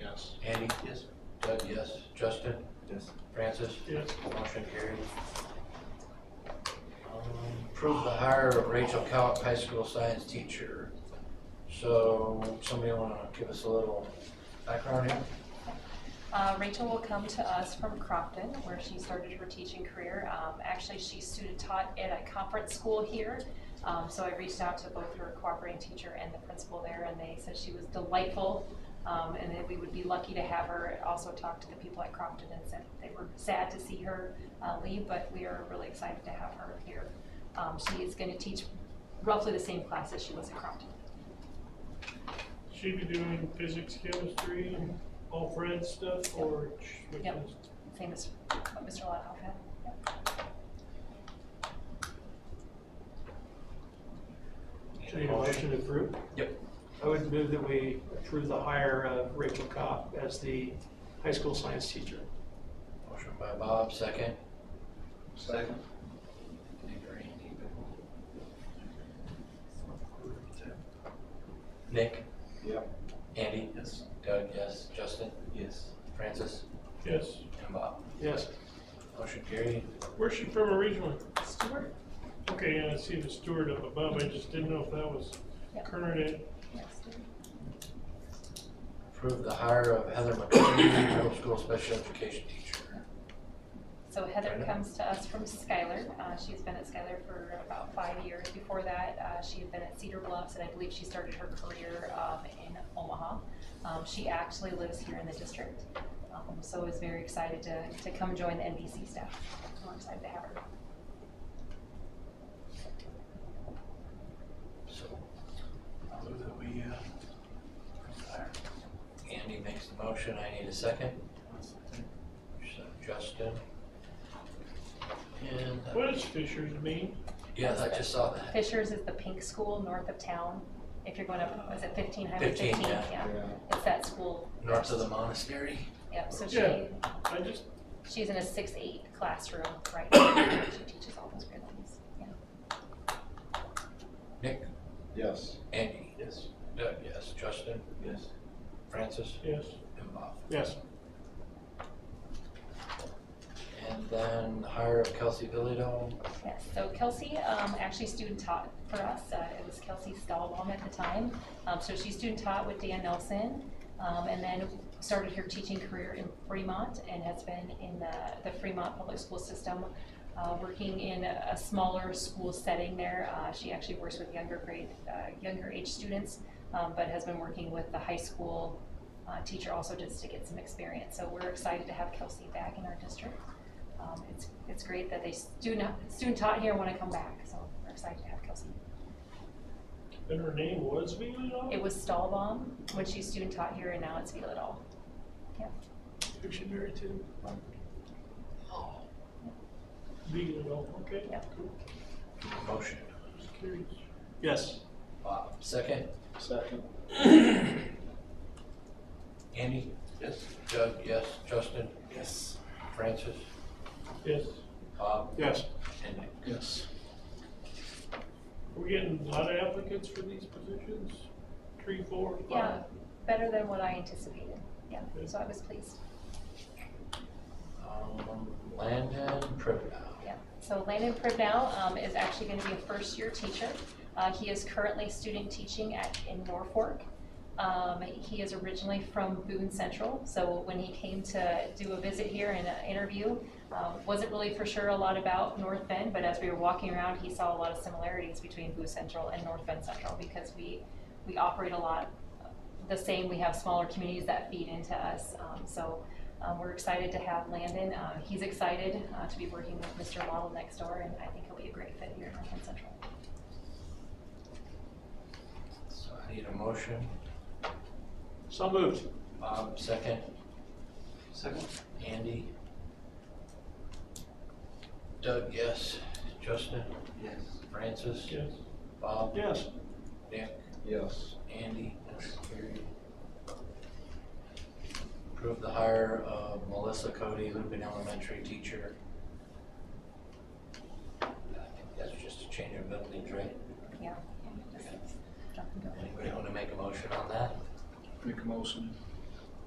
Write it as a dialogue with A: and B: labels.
A: Yes.
B: Andy?
C: Yes.
B: Doug, yes. Justin?
C: Yes.
B: Francis?
A: Yes.
B: Motion carried. Um, Approve the hire of Rachel Cowett, high school science teacher. So somebody want to give us a little background here?
D: Uh, Rachel will come to us from Crofton, where she started her teaching career. Um, Actually, she student taught at a conference school here. Um, So I reached out to both her cooperating teacher and the principal there, and they said she was delightful, um, and that we would be lucky to have her. I Also talked to the people at Crofton and said they were sad to see her uh, leave, but we are really excited to have her here. Um, She is going to teach roughly the same class as she was at Crofton.
A: She'd be doing physics, chemistry, all Fred stuff, or sh- which
D: Yep.
A: is,
D: Same as what Mr. Lothoff had. Yep.
A: should I need a motion to approve?
B: Yep.
A: I would move that we approve the hire of Rachel Cop as the high school science teacher.
B: Motion by Bob, second.
C: Second.
B: Nick?
C: Yep.
B: Andy?
C: Yes.
B: Doug, yes. Justin?
C: Yes.
B: Francis?
A: Yes.
B: And Bob.
A: Yes.
B: Motion carried.
A: Where's she from originally?
D: Stewart?
A: Okay, yeah, I see the steward up above, I just didn't know if that was
D: Yep.
A: current in.
D: Yes, Stewart.
B: Approve the hire of Heather McCurdy, middle school special education teacher.
D: So Heather
B: Brenda?
D: comes to us from Skylar. Uh, She's been at Skylar for about five years. Before that, uh, she had been at Cedar Bluffs, and I believe she started her career um, in Omaha. Um, She actually lives here in the district, um, so is very excited to to come join the NBC staff. We're excited to have her.
B: So, I move that we, uh, approve the hire. Andy makes the motion, I need a second. So Justin. And, uh,
A: What does Fisher's mean?
B: yeah, I just saw that.
D: Fishers is the pink school north of town. If you're going up, was it 15, Highway
B: 15,
D: 15?
B: yeah.
D: It's that school.
B: North of the monastery.
D: Yep, so
A: Yeah.
D: she,
A: I just,
D: she's in a 6-8 classroom right now. She teaches all those grade levels. Yeah.
B: Nick,
C: Yes.
B: Andy,
C: Yes.
B: Doug, yes. Justin,
C: Yes.
B: Francis,
A: yes,
B: and Bob.
A: yes.
B: And then the hire of Kelsey Villado,
D: Yes, so Kelsey um, actually student taught for us. Uh, It was Kelsey Stahlbaum at the time. Um, So she student taught with Dan Nelson um, and then started her teaching career in Fremont and has been in the the Fremont Public School System, uh, working in a a smaller school setting there. Uh, She actually works with younger grade, uh, younger age students, um, but has been working with the high school uh, teacher also just to get some experience. So we're excited to have Kelsey back in our district. Um, it's, it's great that they student, student taught here want to come back, so we're excited to have Kelsey.
A: And her name was
D: It
A: Vila?
D: was Stahlbaum when she student taught here, and now it's Feel It All.
A: Who she married to? Vila, okay.
D: Yeah.
A: cool.
B: motion.
A: Just curious. Yes.
B: Bob, second.
C: Second.
B: Andy?
C: Yes.
B: Doug, yes. Justin,
C: Yes.
B: Francis,
A: Yes.
B: Bob,
A: Yes.
B: and Nick.
C: Yes.
A: Are we getting a lot of applicants for these positions? Three, four, five?
D: Yeah, better than what I anticipated, yeah, so I was pleased,
B: Um, Landon Pribnow.
D: yeah. So Landon Pribnow um, is actually going to be a first-year teacher. Uh, He is currently student teaching at, in Norfolk. Um, He is originally from Boone Central, so when he came to do a visit here and an interview, um, wasn't really for sure a lot about North Bend, but as we were walking around, he saw a lot of similarities between Boone Central and North Bend Central because we, we operate a lot the same. We have smaller communities that feed into us. Um, so um, we're excited to have Landon. Uh, he's excited uh, to be working with Mr. Waddle next door, and I think he'll be a great fit here in North Bend Central.
B: So I need a motion.
A: So moved.
B: Bob, second.
C: Second.
B: Andy? Doug, yes. Justin,
C: Yes.
B: Francis,
A: Yes.
B: Bob,
A: Yes.
B: Nick,
C: Yes.
B: Andy, motion carried. Approve the hire of Melissa Cody, Lupin Elementary teacher. I think that's just a change of buildings, right?
D: Yeah. Just jump and go.
B: Anybody want to make a motion on that?
C: Make a motion.